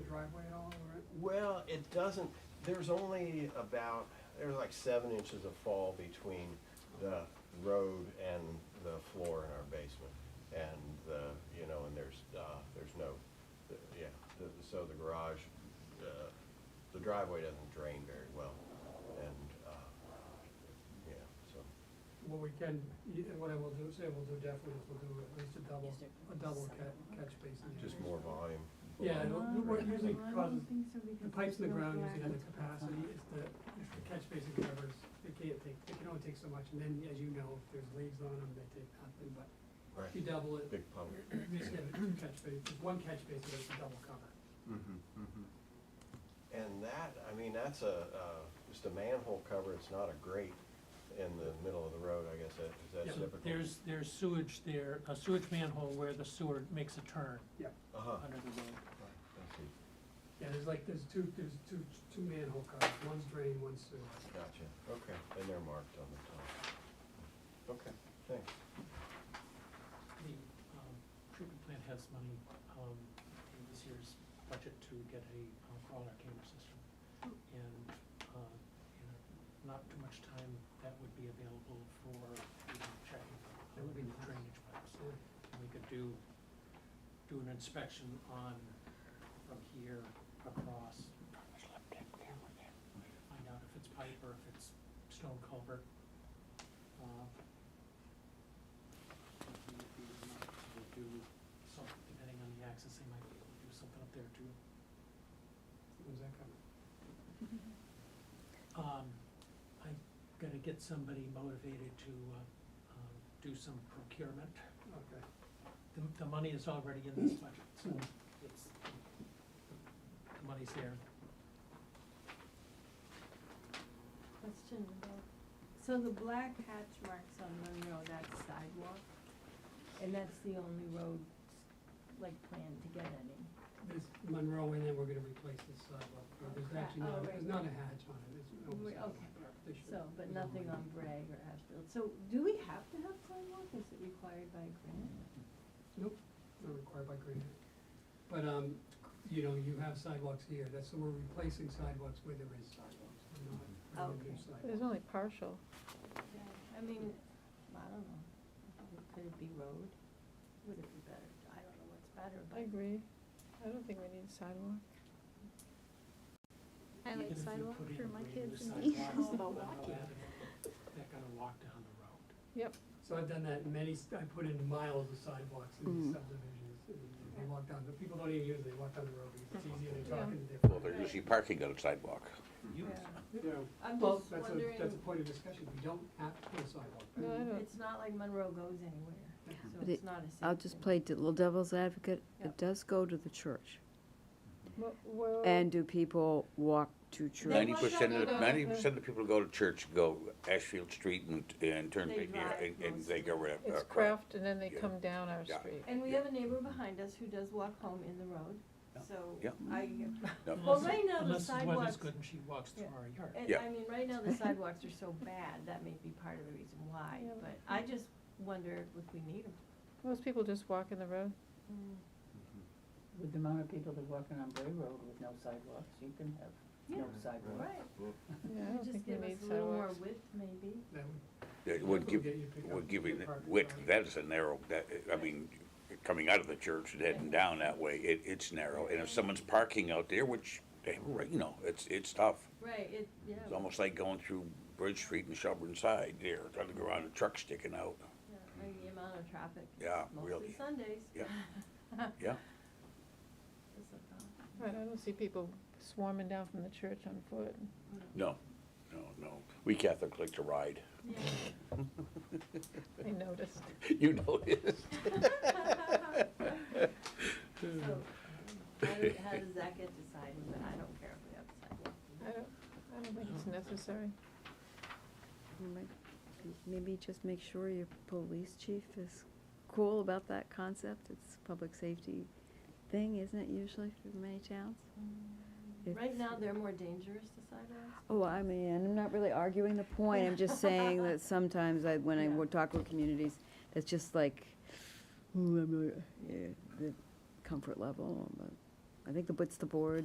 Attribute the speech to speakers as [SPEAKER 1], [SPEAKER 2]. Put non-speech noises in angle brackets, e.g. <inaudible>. [SPEAKER 1] driveway at all, or?
[SPEAKER 2] Well, it doesn't, there's only about, there's like seven inches of fall between the road and the floor in our basement. And the, you know, and there's, uh, there's no, yeah, the- so the garage, uh, the driveway doesn't drain very well. And, uh, yeah, so,
[SPEAKER 1] What we can, y- what I will do, say we'll do definitely is we'll do at least a double,
[SPEAKER 3] Just a-
[SPEAKER 1] a double catch, catch basin. there.
[SPEAKER 2] just more volume.
[SPEAKER 1] Yeah, it'll-
[SPEAKER 4] Um,
[SPEAKER 1] what usually
[SPEAKER 4] I don't
[SPEAKER 1] causes,
[SPEAKER 4] think so because
[SPEAKER 1] the pipes in the
[SPEAKER 4] it's
[SPEAKER 1] ground
[SPEAKER 4] not
[SPEAKER 1] usually have the
[SPEAKER 4] black.
[SPEAKER 1] capacity, it's the, it's the catch basin covers, they can't take, they can only take so much, and then, as you know, if there's leaves on them, they take nothing, but if you
[SPEAKER 2] Right,
[SPEAKER 1] double it,
[SPEAKER 2] big pump.
[SPEAKER 1] you just get a catch basin, one catch basin, that's a double cover.
[SPEAKER 2] Mm-hmm, And that, I mean, that's a, uh, just a manhole cover, it's not a grate in the middle of the road, I guess, that, is that
[SPEAKER 1] Yeah,
[SPEAKER 2] typical?
[SPEAKER 5] There's, there's sewage there, a sewage manhole where the sewer makes a turn
[SPEAKER 2] Uh-huh.
[SPEAKER 5] under the road.
[SPEAKER 2] I see.
[SPEAKER 1] Yeah, there's like, there's two, there's two, two manhole covers, one's drain, one's sewer.
[SPEAKER 2] Gotcha, okay, and they're marked on the top. Okay, thanks.
[SPEAKER 5] The um, treatment plant has money um, in this year's budget to get a uh, crawler camera system. And uh, in a- not too much time, that would be available for you know, checking
[SPEAKER 1] That would be nice.
[SPEAKER 5] drainage pipes.
[SPEAKER 1] So,
[SPEAKER 5] And we could do, do an inspection on, from here across. Find out if it's pipe or if it's stone culvert. Uh, we would be able to do something, depending on the access, they might be able to do something up there too.
[SPEAKER 1] when's that coming?
[SPEAKER 5] Um, I'm gonna get somebody motivated to, uh, um, do some procurement.
[SPEAKER 1] Okay,
[SPEAKER 5] The, the money is already in this budget, so it's, the money's there.
[SPEAKER 4] Question about, so the black hatch marks on Monroe, that's sidewalk, and that's the only road, like, planned to get any.
[SPEAKER 1] this Monroe, and then we're gonna replace this sidewalk, or there's actually
[SPEAKER 4] Oh,
[SPEAKER 1] not,
[SPEAKER 4] right.
[SPEAKER 1] there's not a hatch on it, it's. no
[SPEAKER 4] Wait,
[SPEAKER 1] sidewalk.
[SPEAKER 4] okay.
[SPEAKER 1] They should-
[SPEAKER 4] So, but
[SPEAKER 1] there's no
[SPEAKER 4] nothing
[SPEAKER 1] line.
[SPEAKER 4] on Bragg or Ashfield, so do we have to have sidewalk, is it required by grant?
[SPEAKER 1] Nope, not required by grant. But, um, you know, you have sidewalks here, that's, so we're replacing sidewalks where there is sidewalks, we're not, we're
[SPEAKER 4] Oh, Okay.
[SPEAKER 6] There's only partial.
[SPEAKER 4] I mean, I don't know, could it be road, would it be better, I don't know what's better,
[SPEAKER 6] I
[SPEAKER 4] but.
[SPEAKER 6] agree. I don't think we need a sidewalk.
[SPEAKER 5] I like sidewalk for my kids and me. They're gonna walk down the road.
[SPEAKER 1] So I've done that in many, st- I put in miles of sidewalks in these subdivisions, and they walk down, the people don't even use it, they walk down the road, because it's easier, they're
[SPEAKER 6] Yeah.
[SPEAKER 1] talking to their.
[SPEAKER 7] Well, they're usually parking on a sidewalk.
[SPEAKER 5] You,
[SPEAKER 1] Yeah,
[SPEAKER 4] I'm
[SPEAKER 1] well,
[SPEAKER 4] just
[SPEAKER 1] that's a,
[SPEAKER 4] wondering-
[SPEAKER 1] that's a point of discussion, we don't have to put a sidewalk.
[SPEAKER 6] No, I don't.
[SPEAKER 4] It's not like Monroe goes anywhere, so
[SPEAKER 8] But
[SPEAKER 4] it's
[SPEAKER 8] it-
[SPEAKER 4] not a safe.
[SPEAKER 8] I'll just
[SPEAKER 4] thing.
[SPEAKER 8] play de- little devil's advocate.
[SPEAKER 4] Yep.
[SPEAKER 8] It does go to the church.
[SPEAKER 6] Wh- where-
[SPEAKER 8] And do people walk to
[SPEAKER 4] They
[SPEAKER 8] church?
[SPEAKER 7] Ninety
[SPEAKER 4] walk down
[SPEAKER 7] percent
[SPEAKER 4] the
[SPEAKER 7] of,
[SPEAKER 4] road.
[SPEAKER 7] ninety percent of the people who go to church go Ashfield Street and, and turn,
[SPEAKER 4] They
[SPEAKER 7] you know,
[SPEAKER 4] drive
[SPEAKER 7] and, and
[SPEAKER 4] most
[SPEAKER 7] they
[SPEAKER 4] of
[SPEAKER 7] go
[SPEAKER 4] them.
[SPEAKER 7] right up.
[SPEAKER 6] It's
[SPEAKER 7] across.
[SPEAKER 6] Kraft and then they
[SPEAKER 7] Uh, Yeah.
[SPEAKER 6] come down our
[SPEAKER 7] Yeah.
[SPEAKER 6] street.
[SPEAKER 4] And we
[SPEAKER 7] Yeah.
[SPEAKER 4] have a neighbor behind us who does walk home in the road, so
[SPEAKER 7] Yeah.
[SPEAKER 4] I,
[SPEAKER 7] No.
[SPEAKER 4] well,
[SPEAKER 5] unless,
[SPEAKER 4] right now the
[SPEAKER 5] unless the weather's
[SPEAKER 4] sidewalks,
[SPEAKER 5] good and she walks through
[SPEAKER 4] Yeah.
[SPEAKER 5] our yard.
[SPEAKER 4] and
[SPEAKER 7] Yeah.
[SPEAKER 4] I mean, right now the sidewalks are so bad, that may be part of the reason why,
[SPEAKER 6] Yeah,
[SPEAKER 4] but I just wonder if we need them.
[SPEAKER 6] Most people just walk in the road.
[SPEAKER 9] With the amount of people that are walking on Bray Road with no sidewalks, you can have no
[SPEAKER 4] Yeah.
[SPEAKER 9] sidewalks.
[SPEAKER 4] Right,
[SPEAKER 6] Yeah, I don't
[SPEAKER 4] just
[SPEAKER 6] think we
[SPEAKER 4] give us
[SPEAKER 6] need
[SPEAKER 4] a little more
[SPEAKER 6] sidewalks.
[SPEAKER 4] width maybe.
[SPEAKER 1] That would
[SPEAKER 7] It would give,
[SPEAKER 1] Get you pick up
[SPEAKER 7] would give you
[SPEAKER 1] your parking
[SPEAKER 7] width,
[SPEAKER 1] spot.
[SPEAKER 7] that is a narrow, that, I mean, coming out of the church and heading down that way, it, it's narrow. And if someone's parking out there, which they have a right, you know, it's, it's tough.
[SPEAKER 4] Right, it, yeah,
[SPEAKER 7] It's almost like going through Bridge Street and Shelburne Side there, trying to go around a truck sticking out.
[SPEAKER 4] yeah, and the amount of traffic. is
[SPEAKER 7] Yeah,
[SPEAKER 4] Mostly
[SPEAKER 7] really.
[SPEAKER 4] Sundays. <laughs>
[SPEAKER 7] Yeah. Yeah.
[SPEAKER 4] Is a problem.
[SPEAKER 6] I I don't see people swarming down from the church on foot.
[SPEAKER 7] No, no, no. We Catholics like to
[SPEAKER 4] <laughs>
[SPEAKER 7] ride.
[SPEAKER 4] Yeah.
[SPEAKER 6] I noticed.
[SPEAKER 7] <laughs> You noticed.
[SPEAKER 4] So, I
[SPEAKER 7] <laughs>
[SPEAKER 4] don't know. How do- how does that get decided, but I don't care if we have a sidewalk.
[SPEAKER 6] I don't, I don't think it's necessary.
[SPEAKER 8] You might- Maybe just make sure your police chief is cool about that concept. It's a public safety thing, isn't it usually for many towns? If-
[SPEAKER 4] Right now, they're more dangerous, the sidewalks.
[SPEAKER 8] Oh, I mean, I'm not really arguing the point. I'm just saying <laughs> that sometimes I, when I
[SPEAKER 4] Yeah.
[SPEAKER 8] wo- talk with communities, it's just like, eh, ooh, I'm, uh, yeah, the comfort level. but I think the, it's the board